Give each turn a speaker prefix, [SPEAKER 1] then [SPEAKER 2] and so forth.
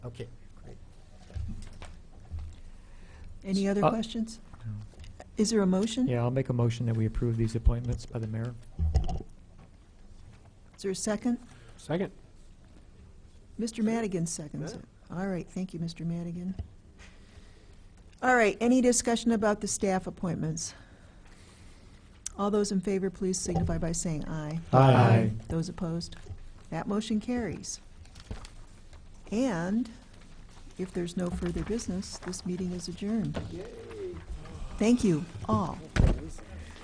[SPEAKER 1] Okay, great.
[SPEAKER 2] Any other
[SPEAKER 3] Uh,
[SPEAKER 2] questions? Is there a motion?
[SPEAKER 3] Yeah, I'll make a motion that we approve these appointments by the mayor.
[SPEAKER 2] Is there a second?
[SPEAKER 1] Second.
[SPEAKER 2] Mr. Madigan seconds it. All right, thank you, Mr. Madigan. All right, any discussion about the staff appointments? All those in favor, please signify by saying aye.
[SPEAKER 3] Aye. Aye.
[SPEAKER 2] Those opposed? That motion carries. And if there's no further business, this meeting is adjourned. Thank you all.